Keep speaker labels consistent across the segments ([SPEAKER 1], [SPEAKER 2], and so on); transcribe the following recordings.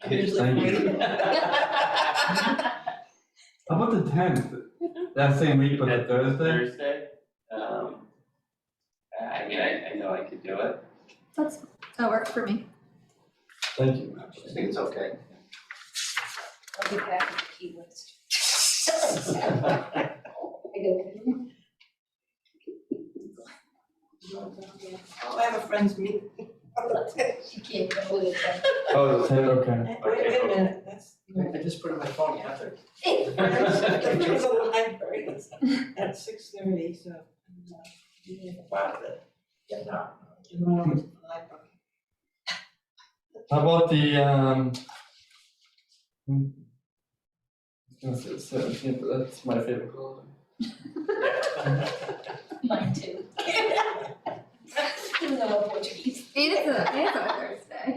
[SPEAKER 1] Kids, thank you. How about the tenth? That same week, but the
[SPEAKER 2] That
[SPEAKER 1] Thursday?
[SPEAKER 2] Thursday, um, I mean, I, I know I could do it,
[SPEAKER 3] That's, that worked for me.
[SPEAKER 1] Thank you.
[SPEAKER 2] I think it's okay.
[SPEAKER 4] I'll get back with the key list. I go,
[SPEAKER 5] Oh, I have a friend's meeting. Wait,
[SPEAKER 4] She can't go with it.
[SPEAKER 1] Oh, the tenth, okay.
[SPEAKER 5] wait a minute, that's,
[SPEAKER 6] I just put it in my phone, you have to.
[SPEAKER 5] the friend's a library, it's at six thirty, so. I'm, uh, meeting at the bar that-
[SPEAKER 6] Yeah, no.
[SPEAKER 5] tomorrow is the library.
[SPEAKER 1] How about the, um, hmm. I was gonna say the 17th, but that's my favorite holiday.
[SPEAKER 4] Mine too. Even though I'm Portuguese.
[SPEAKER 3] It is a, it is a Thursday.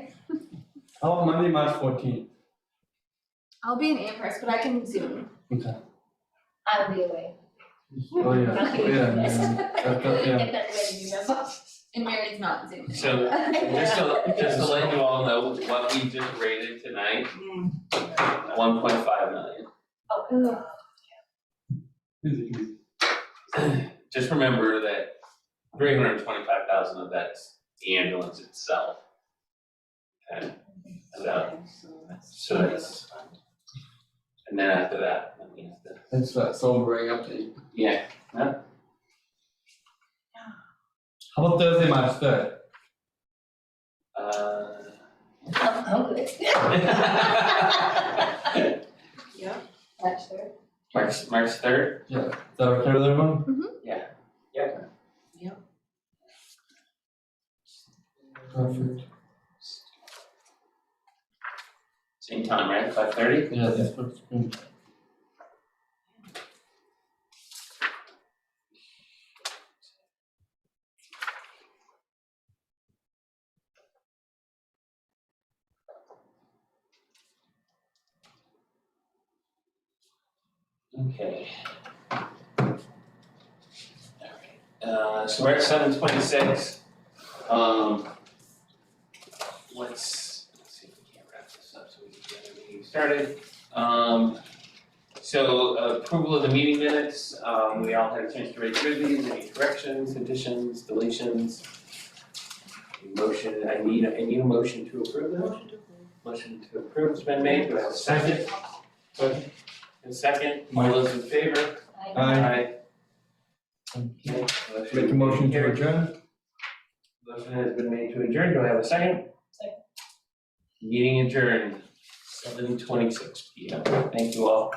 [SPEAKER 1] How about Monday, March fourteenth?
[SPEAKER 3] I'll be in Amherst, but I can Zoom.
[SPEAKER 1] Okay.
[SPEAKER 4] I'll be away.
[SPEAKER 1] Oh, yeah, yeah,
[SPEAKER 4] I'll be
[SPEAKER 1] yeah. That- that- yeah.
[SPEAKER 4] Get that ready, remember?
[SPEAKER 3] And Mary's not Zooming.
[SPEAKER 2] So- Just to, just to let you all know what we just rated tonight,
[SPEAKER 5] Mm.
[SPEAKER 2] one point five million.
[SPEAKER 4] Oh,
[SPEAKER 1] Easy, easy.
[SPEAKER 2] Just remember that three hundred and twenty-five thousand of that's the ambulance itself. Okay, so,
[SPEAKER 5] So that's-
[SPEAKER 2] so that's, and then after that, I mean, the-
[SPEAKER 1] It's that sobering update.
[SPEAKER 2] yeah,
[SPEAKER 1] How about Thursday, March third?
[SPEAKER 2] uh.
[SPEAKER 4] I'm, I'm good.
[SPEAKER 2] uh,
[SPEAKER 5] Yeah,
[SPEAKER 4] That's fair.
[SPEAKER 2] March, March third,
[SPEAKER 1] Is that okay with everyone? Perfect.
[SPEAKER 2] same time, right, five thirty?
[SPEAKER 1] Yeah, that's perfect. Mm.
[SPEAKER 2] Okay. Uh, so we're at seven twenty-six, um. Let's, let's see if we can wrap this up so we can get the meeting started. Um, so approval of the meeting minutes, um, we all had a chance to read through these, any corrections, additions, deletions? Motion, I need, I need a motion to approve them.
[SPEAKER 5] motion to approve.
[SPEAKER 2] Motion to approve has been made, do I have a second? Second. And second, all those in favor?
[SPEAKER 4] I,
[SPEAKER 1] Aye.
[SPEAKER 2] Okay,
[SPEAKER 1] Make a motion to adjourn?
[SPEAKER 2] Motion has been made to adjourn, do I have a second?
[SPEAKER 4] Second.
[SPEAKER 2] Meeting adjourned, seven twenty-six P M, thank you all.